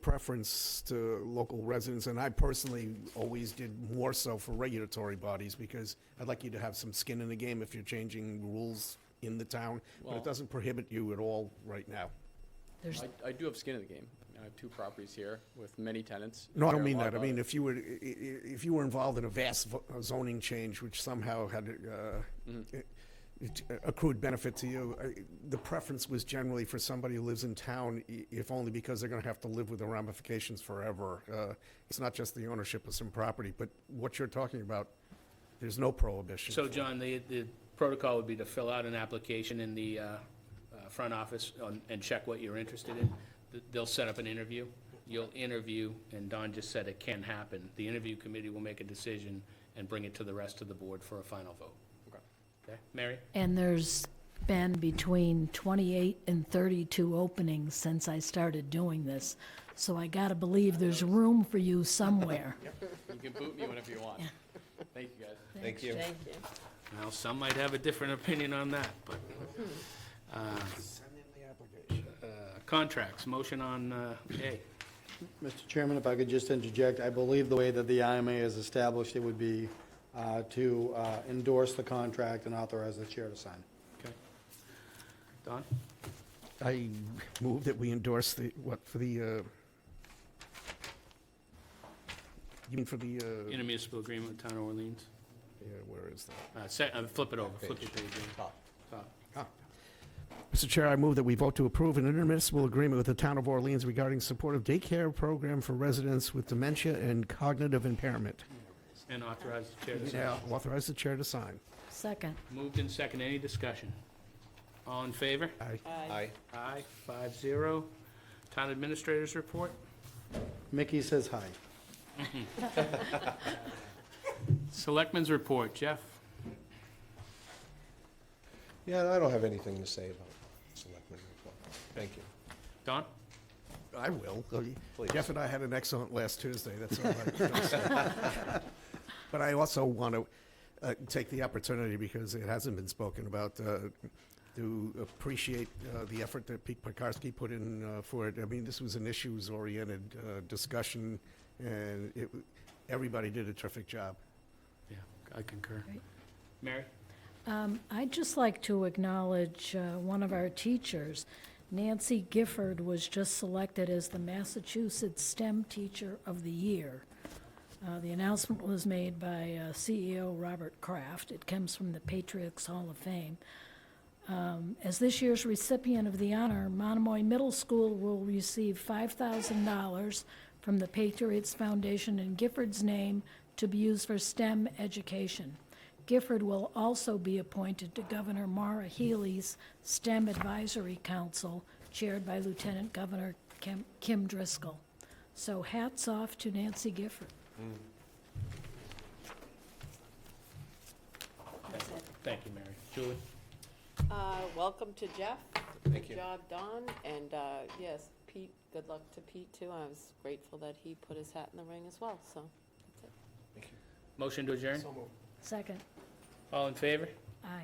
preference to local residents, and I personally always did more so for regulatory bodies, because I'd like you to have some skin in the game if you're changing rules in the town, but Well- it doesn't prohibit you at all right now. There's, I, I do have skin in the game. I have two properties here with many tenants. No, I care don't a mean lot that. I about mean, it. if you were, i- i- if you were involved in a vast vo- uh, zoning change, which somehow had uh, i- it uh, accrued benefit to you, I- the preference was generally for somebody who lives in town, i- if only because they're going to have to live with the ramifications forever. Uh, It's not just the ownership of some property, but what you're talking about, there's no prohibition. So, John, the, the protocol would be to fill out an application in the, uh, uh, front office on- and check what you're interested in. Th- They'll set up an interview. You'll interview, and Don just said it can happen. The interview committee will make a decision and bring it to the rest of the board for a final vote. Okay. Okay, Mary? and there's been between 28 and 32 openings since I started doing this, so I gotta believe there's room for you somewhere. You can boot me whenever you want. Thank you, guys. Thank you. Thank you. Now, some might have a different opinion on that, but, uh, Send in the application. uh, contracts, motion on, uh, A. Mr. Chairman, if I could just interject, I believe the way that the IMA is established, it would be uh, to uh, endorse the contract and authorize the chair to sign. Okay. Don? I move that we endorse the, what, for the, uh, you mean for the, uh, Intermunicipal agreement with Town of Orleans. yeah, where is that? Uh, se- uh, flip it over, flip the page. yeah. Top. Mr. Chair, I move that we vote to approve an intermunicipal agreement with the Town of Orleans regarding supportive daycare program for residents with dementia and cognitive impairment. And authorize the chair to sign. Now, authorize the chair to sign. Second. Moved in second, any discussion? All in favor? Aye. Aye. Aye, five zero. Town administrators report? Mickey says hi. Selectmen's report, Jeff? Yeah, I don't have anything to say about selectmen report. Thank you. Don? I will. Jeff and I had an excellent last Tuesday, that's all I can say. But I also want to uh, take the opportunity, because it hasn't been spoken about, uh, to appreciate uh, the effort that Pete Pekarski put in uh, for it. I mean, this was an issues-oriented uh, discussion, and it, w- everybody did a terrific job. Yeah, I concur. Great. Mary? Um, I'd just like to acknowledge uh, one of our teachers. Nancy Gifford was just selected as the Massachusetts STEM Teacher of the Year. Uh, The announcement was made by uh, CEO Robert Kraft. It comes from the Patriots Hall of Fame. Um, As this year's recipient of the honor, Monomoy Middle School will receive $5,000 from the Patriots Foundation in Gifford's name to be used for STEM education. Gifford will also be appointed to Governor Mara Healy's STEM Advisory Council, chaired by Lieutenant Governor Kim- Kim Driscoll. So hats off to Nancy Gifford. Thank you, Mary. Julie? Uh, Welcome to Jeff. Thank you. Good job, Don, and uh, yes, Pete, good luck to Pete, too. I was grateful that he put his hat in the ring as well, so. Motion to adjourn? Second. All in favor?